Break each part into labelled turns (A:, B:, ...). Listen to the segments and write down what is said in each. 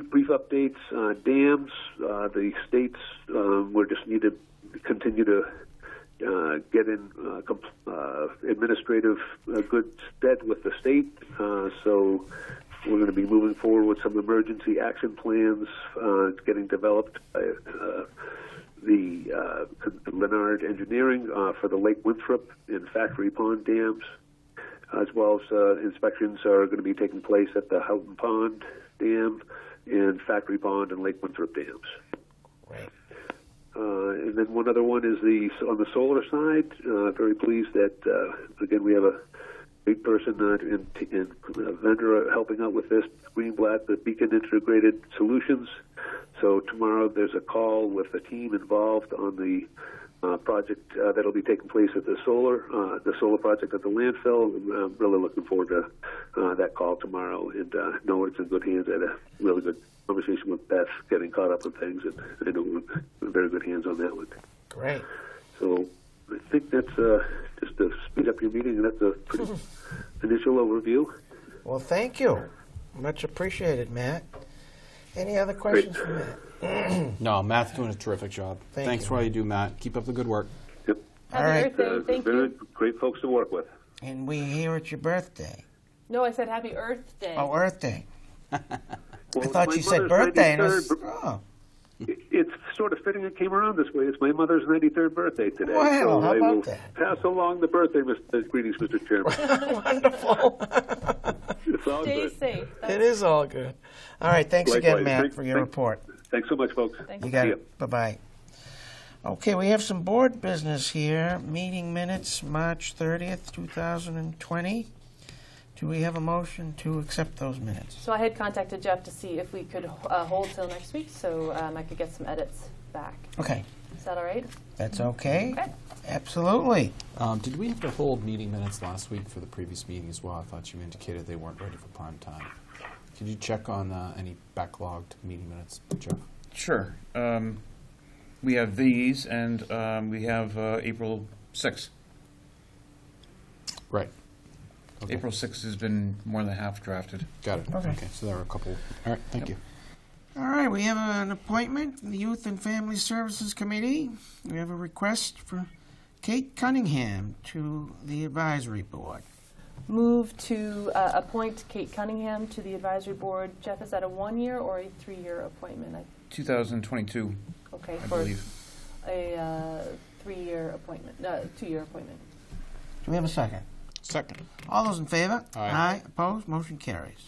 A: updates on dams. Uh, the states um, will just need to continue to uh, get in uh, comp- uh, administrative uh, good stead with the state. Uh, so we're going to be moving forward with some emergency action plans uh, getting developed by uh, the uh, Leonard Engineering uh, for the Lake Winthrop and Factory Pond dams, as well as uh, inspections are going to be taking place at the Houghton Pond Dam and Factory Pond and Lake Winthrop dams.
B: Right.
A: Uh, and then one other one is the on the solar side. Uh, very pleased that uh, again we have a big person uh, in, in a vendor helping out with this Greenblatt, the Beacon Integrated Solutions. So tomorrow there's a call with the team involved on the uh, project uh, that'll be taking place at the solar uh, the solar project at the landfill. I'm uh, really looking forward to uh, that call tomorrow, and uh, know it's in good hands. I had a really good conversation with Beth, getting caught up with things, and I know we're in very good hands on that one.
B: Great.
A: So I think that's uh, just to speed up your meeting. That's a pretty initial overview.
B: Well, thank you. Much appreciated, Matt. Any other questions for Matt?
C: No, Matt's doing a terrific job.
B: Thank
C: Thanks
B: you.
C: for all you do, Matt. Keep up the good work.
A: Yep.
B: All right.
D: Happy Earth
A: Uh,
D: Day. Thank
A: very
D: you.
A: great folks to work with.
B: And we here at your birthday.
D: No, I said Happy Earth Day.
B: Oh, Earth Day.
A: Well,
B: I thought
A: my
B: you said
A: mother's
B: birthday. And I
A: 93rd
B: was, oh,
A: It- It's sort of fitting it came around this way. It's my mother's 93rd birthday today.
B: Wow,
A: so
B: how
A: I
B: about
A: will
B: that?
A: pass along the birthday Mr. greetings, Mr. Chairman.
B: oh. wonderful.
A: It's all
D: Stay
A: good.
D: safe. That's
B: it is all good. All right. Thanks again,
A: Likewise.
B: Matt,
A: Thank-
B: for your
A: thank-
B: report.
A: Thanks so much, folks.
D: Thank
B: You got
A: See ya.
B: it. Bye bye. Okay, we have some board business here. Meeting minutes, March 30th, 2020. Do we have a motion to accept those minutes?
D: So I had contacted Jeff to see if we could uh, hold till next week so um, I could get some edits back.
B: Okay,
D: Is that all right?
B: that's okay.
D: Okay.
B: Absolutely.
C: Um, did we have to hold meeting minutes last week for the previous meeting as well? I thought you indicated they weren't ready for prime time. Could you check on uh, any backlogged meeting minutes, Jeff?
E: Sure. Um, we have these, and um, we have uh, April 6th.
C: Right. Okay.
E: April 6th has been more than half drafted.
C: Got it.
B: Okay.
C: So there are a couple. All right. Thank you.
B: All right, we have an appointment, in the Youth and Family Services Committee. We have a request for Kate Cunningham to the advisory board.
D: Move to uh, appoint Kate Cunningham to the advisory board. Jeff, is that a one-year or a three-year appointment? I-
E: 2022,
D: Okay,
E: I
D: for
E: believe.
D: a uh, three-year appointment, no, two-year appointment.
B: Do we have a second?
C: Second.
B: All those in favor?
C: Aye.
B: opposed, motion carries.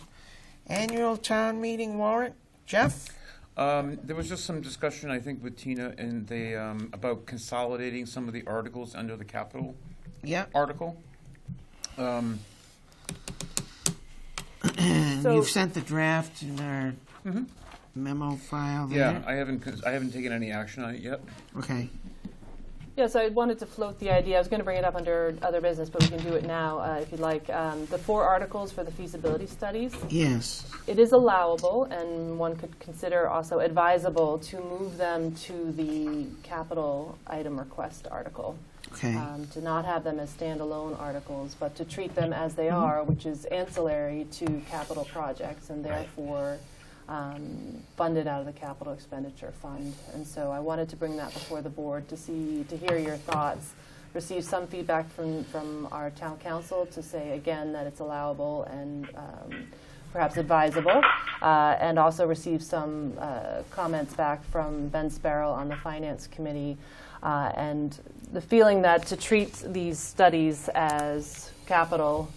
B: Annual town meeting warrant, Jeff?
E: Um, there was just some discussion, I think, with Tina and the um, about consolidating some of the articles under the capital
B: Yeah,
E: article. Um,
B: and
D: So-
B: you've sent the draft in our memo file
E: yeah,
B: there?
E: I haven't. cons- I haven't taken any action on it yet.
B: Okay,
D: Yes, I wanted to float the idea. I was going to bring it up under other business, but we can do it now uh, if you'd like. Um, The four articles for the feasibility studies.
B: yes,
D: it is allowable, and one could consider also advisable to move them to the capital item request article.
B: okay,
D: Um, to not have them as standalone articles, but to treat them as they are, which is ancillary to capital projects and therefore um, funded out of the capital expenditure fund. And so I wanted to bring that before the board to see, to hear your thoughts, receive some feedback from, from our town council to say again that it's allowable and um, perhaps advisable, uh, and also receive some uh, comments back from Ben Sparrow on the Finance Committee, uh, and the feeling that to treat these studies as capital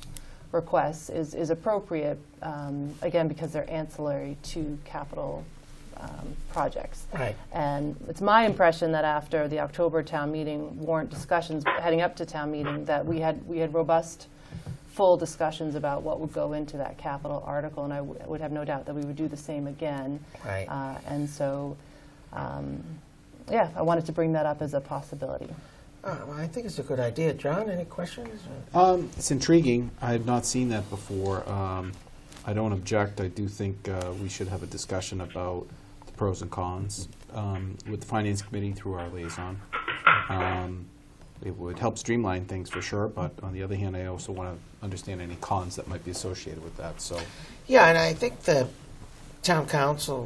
D: requests is, is appropriate, um, again, because they're ancillary to capital um, projects.
B: Right.
D: And it's my impression that after the October town meeting warrant discussions heading up to town meeting, that we had, we had robust, full discussions about what would go into that capital article, and I w- would have no doubt that we would do the same again.
B: Right.
D: Uh, And so, um, yeah, I wanted to bring that up as a possibility.
B: Uh, well, I think it's a good idea. John, any questions? or-
C: Um, it's intriguing. I had not seen that before. Um, I don't object. I do think uh, we should have a discussion about the pros and cons um, with the Finance Committee through our liaison. Um, it would help streamline things for sure, but on the other hand, I also want to understand any cons that might be associated with that. So,
B: Yeah, and I think the town council